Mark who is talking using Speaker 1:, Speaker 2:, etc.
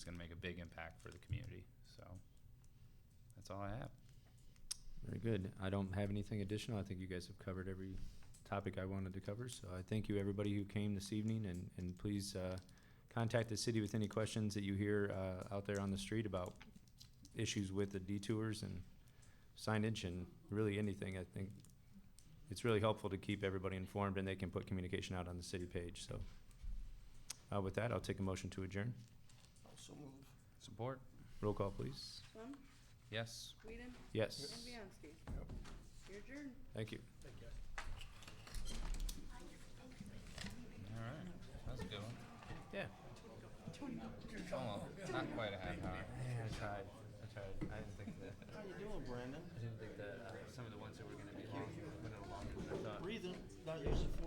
Speaker 1: it's going to make a big impact for the community. So that's all I have.
Speaker 2: Very good. I don't have anything additional. I think you guys have covered every topic I wanted to cover. So I thank you, everybody who came this evening, and, and please, uh, contact the city with any questions that you hear, uh, out there on the street about issues with the detours and signage and really anything. I think it's really helpful to keep everybody informed and they can put communication out on the city page, so. Uh, with that, I'll take a motion to adjourn.
Speaker 3: Also move.
Speaker 1: Support?
Speaker 2: Roll call, please.
Speaker 4: Plum,
Speaker 1: Yes.
Speaker 4: Whedon,
Speaker 2: Yes,
Speaker 4: and Bianski.
Speaker 3: Yep.
Speaker 4: You're adjourned.
Speaker 2: thank you.
Speaker 3: Thank you.
Speaker 1: All right. That was a good one.
Speaker 2: Yeah.
Speaker 1: Almost. Not quite a half hour.
Speaker 2: Yeah, I tried, I tried. I didn't think that,
Speaker 3: How you doing, Brandon?
Speaker 2: I didn't think that, uh, some of the ones that were gonna be long, went on longer than I thought.
Speaker 3: Breathing, not using